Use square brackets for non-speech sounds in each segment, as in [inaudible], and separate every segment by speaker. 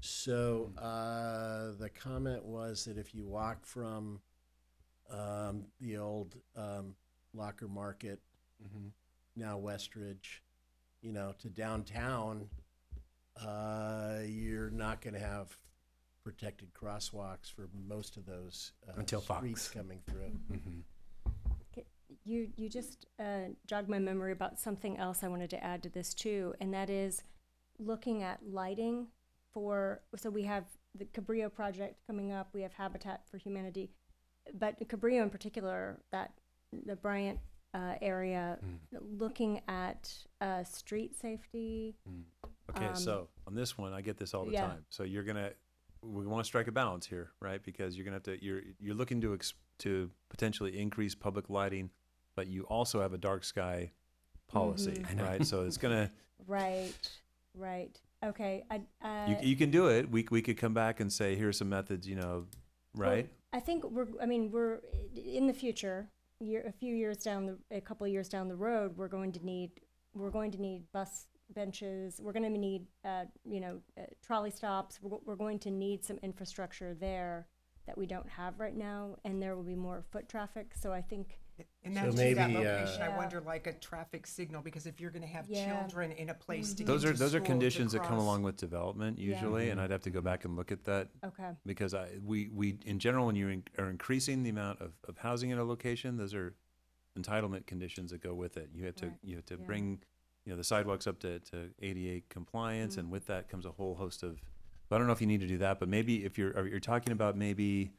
Speaker 1: So uh, the comment was that if you walk from um, the old um, Locker Market,
Speaker 2: Mm-hmm.
Speaker 1: now Westridge, you know, to downtown, uh, you're not going to have protected crosswalks for most of those uh,
Speaker 2: Until
Speaker 1: streets
Speaker 2: Fox.
Speaker 1: coming through.
Speaker 3: Mm-hmm,
Speaker 4: You, you just uh, jogged my memory about something else I wanted to add to this too, and that is looking at lighting for, so we have the Cabrillo project coming up, we have Habitat for Humanity, but Cabrillo in particular, that, the Bryant uh, area,
Speaker 3: mm-hmm.
Speaker 4: looking at uh, street safety.
Speaker 2: Okay,
Speaker 4: Um,
Speaker 2: so on this one, I get this all the
Speaker 4: yeah.
Speaker 2: time. So you're gonna, we want to strike a balance here, right? Because you're gonna have to, you're you're looking to ex- to potentially increase public lighting, but you also have a dark sky policy,
Speaker 4: Mhm.
Speaker 2: right? So
Speaker 4: [laughs]
Speaker 2: it's gonna,
Speaker 4: Right, right. Okay, I, uh,
Speaker 2: you, you can do it. We c- we could come back and say, here's some methods, you know,
Speaker 4: Well,
Speaker 2: right?
Speaker 4: I think we're, I mean, we're, in the future, year, a few years down the, a couple of years down the road, we're going to need, we're going to need bus benches, we're gonna need, uh, you know, uh, trolley stops, we're, go- we're going to need some infrastructure there that we don't have right now, and there will be more foot traffic, so I think,
Speaker 5: And
Speaker 1: So
Speaker 5: that's to that
Speaker 1: maybe, uh,
Speaker 5: location, I
Speaker 4: Yeah.
Speaker 5: wonder like a traffic signal, because if you're gonna have
Speaker 4: Yeah. Mm-hmm.
Speaker 5: children in a place to get to
Speaker 2: Those are those are
Speaker 5: school, to
Speaker 2: conditions that come
Speaker 5: cross-
Speaker 2: along with development
Speaker 4: Yeah.
Speaker 2: usually, and I'd have to go back and look at that
Speaker 4: okay,
Speaker 2: because I we we in general when you in- are increasing the amount of, of housing in a location, those are entitlement conditions that go with it. You have to
Speaker 4: Right,
Speaker 2: you have to
Speaker 4: yeah.
Speaker 2: bring you know the sidewalks up to, to ADA compliance,
Speaker 4: Mm-hmm.
Speaker 2: and with that comes a whole host of. I don't know if you need to do that, but maybe if you're are, you're talking about maybe.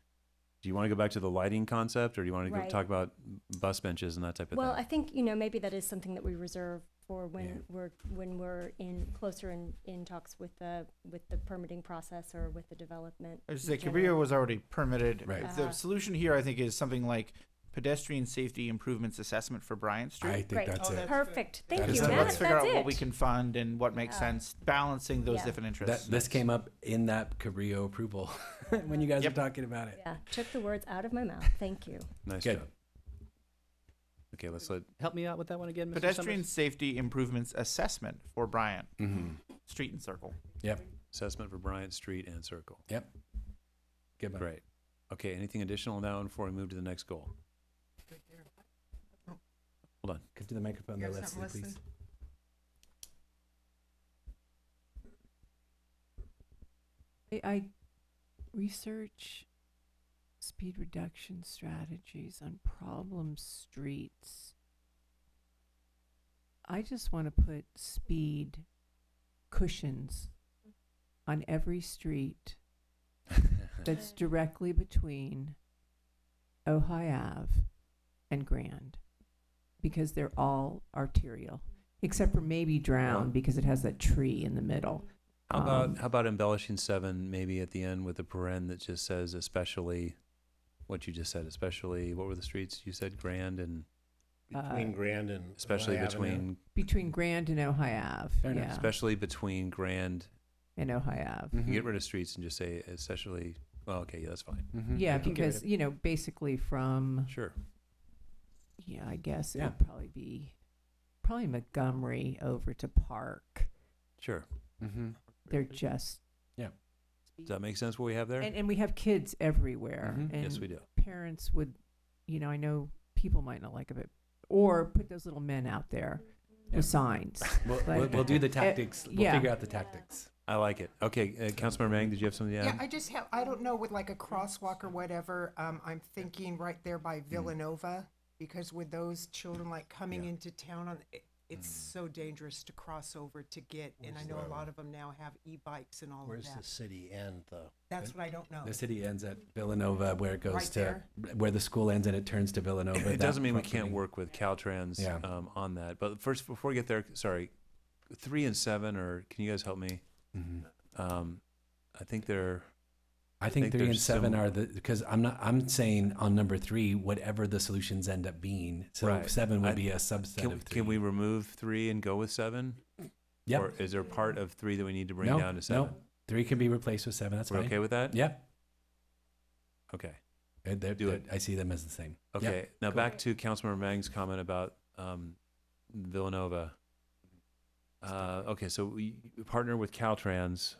Speaker 2: Do you want to go back to the lighting concept, or do you want to go
Speaker 4: Right.
Speaker 2: talk about bus benches and that type of
Speaker 4: well, I
Speaker 2: thing?
Speaker 4: think, you know, maybe that is something that we reserve for
Speaker 2: Yeah.
Speaker 4: when we're, when we're in, closer in, in talks with the, with the permitting process or with the development.
Speaker 6: I
Speaker 4: in
Speaker 6: was say
Speaker 4: general.
Speaker 6: Cabrillo was already permitted.
Speaker 2: Right.
Speaker 4: Ah.
Speaker 6: The solution here, I think, is something like pedestrian safety improvements assessment for Bryant Street.
Speaker 2: I think
Speaker 4: Great.
Speaker 2: that's
Speaker 5: Oh,
Speaker 2: it.
Speaker 5: that-
Speaker 4: Perfect. Thank
Speaker 2: That
Speaker 4: you,
Speaker 2: is
Speaker 4: Matt.
Speaker 2: how-
Speaker 6: let's
Speaker 4: That's
Speaker 6: figure out
Speaker 4: it.
Speaker 6: what we can fund and what makes
Speaker 4: Yeah.
Speaker 6: sense, balancing those
Speaker 4: Yeah.
Speaker 6: different interests.
Speaker 3: That, this came up in that Cabrillo approval [laughs] when you guys
Speaker 6: Yep.
Speaker 3: were talking about it.
Speaker 4: Yeah, took the words out of my mouth. Thank you.
Speaker 2: Nice
Speaker 3: Good.
Speaker 2: job. Okay, let's let
Speaker 7: Help me out with that one again, Mr.
Speaker 6: pedestrian
Speaker 7: Summers?
Speaker 6: safety improvements assessment for Bryant
Speaker 3: Mm-hmm.
Speaker 6: Street and Circle.
Speaker 2: assessment for Bryant Street and Circle.
Speaker 3: Good one.
Speaker 2: Great. Okay, anything additional on that one before we move to the next goal?
Speaker 5: Right there.
Speaker 3: Could do the microphone
Speaker 5: You
Speaker 3: there,
Speaker 5: have
Speaker 3: Leslie,
Speaker 5: something,
Speaker 3: please.
Speaker 8: I, I research speed reduction strategies on problem streets. I just want to put speed cushions on
Speaker 2: [laughs]
Speaker 8: every street that's directly between Ojai Ave and Grand because they're all arterial, except for maybe Drown because it has that tree in the middle.
Speaker 2: How about
Speaker 8: Um,
Speaker 2: how about embellishing seven maybe at the end with a paren that just says especially what you just said, especially what were the streets you said? Grand and
Speaker 1: Between
Speaker 8: Uh,
Speaker 1: Grand and
Speaker 2: especially
Speaker 1: Ojai Avenue.
Speaker 2: between
Speaker 8: Between Grand and Ojai Ave.
Speaker 3: Fair enough. Mm-hmm.
Speaker 8: yeah,
Speaker 2: especially between Grand
Speaker 8: and Ojai Ave.
Speaker 2: you get rid of streets and just say especially well, okay, yeah, that's fine.
Speaker 8: Yeah,
Speaker 3: You can Mm-hmm. get rid
Speaker 8: because you know, basically from
Speaker 2: Sure.
Speaker 8: yeah, I guess it
Speaker 3: Yeah.
Speaker 8: would probably be probably Montgomery over to Park.
Speaker 2: Sure.
Speaker 3: of- Mhm.
Speaker 8: They're just
Speaker 2: Does that make sense what we have there? Mm-hmm.
Speaker 8: and, and we have kids everywhere,
Speaker 3: Mhm.
Speaker 8: and
Speaker 2: yes we do.
Speaker 8: parents would, you know, I know people might not like it, or put those little men out there
Speaker 3: Yeah.
Speaker 8: with signs.
Speaker 3: We'll,
Speaker 8: But-
Speaker 3: we'll, we'll do the
Speaker 8: Eh,
Speaker 3: tactics. we'll
Speaker 8: yeah.
Speaker 3: figure out the tactics.
Speaker 2: I like it. Okay, uh, Councilmember Mang, did you have something to add?
Speaker 5: Yeah, I just have, I don't know, with like a crosswalk or whatever, um, I'm thinking right there by Villanova, because with those children like coming
Speaker 2: Mm-hmm. Yeah. Mm.
Speaker 5: into town on, it- it's so dangerous to cross over to get, and I know a lot of them now have e-bikes and all of
Speaker 1: Where's the
Speaker 5: that.
Speaker 1: city end, though?
Speaker 5: That's what I don't know.
Speaker 3: The city ends at Villanova, where it goes
Speaker 5: Oh. Right
Speaker 3: to where the school ends and it turns to Villanova.
Speaker 2: It doesn't
Speaker 3: that
Speaker 2: mean we can't
Speaker 3: property.
Speaker 2: work with Caltrans
Speaker 3: Yeah.
Speaker 2: um, on that. But first, before we get there, sorry, three and seven, or can you guys help me?
Speaker 3: Mhm.
Speaker 2: Um, I think they're
Speaker 3: I think,
Speaker 2: think
Speaker 3: three
Speaker 2: they're
Speaker 3: and seven
Speaker 2: similar.
Speaker 3: are the because I'm not I'm saying on number three whatever the solutions end up being. So
Speaker 2: Right.
Speaker 3: seven would
Speaker 2: I-
Speaker 3: be a subset
Speaker 2: can,
Speaker 3: of three.
Speaker 2: can we remove three and go with seven?
Speaker 3: Yep.
Speaker 2: Or is there part of three that we need to bring
Speaker 3: no,
Speaker 2: down to seven?
Speaker 3: No, three can be replaced with seven. That's
Speaker 2: We're
Speaker 3: fine.
Speaker 2: okay with that?
Speaker 3: Yeah,
Speaker 2: Okay.
Speaker 3: They're- they're-
Speaker 2: Do
Speaker 3: they're-
Speaker 2: it.
Speaker 3: I see them as the same. Yep.
Speaker 2: Okay. Now
Speaker 3: cool.
Speaker 2: back to Councilmember Mang's comment about um, Villanova. Uh, okay, so we partner with Caltrans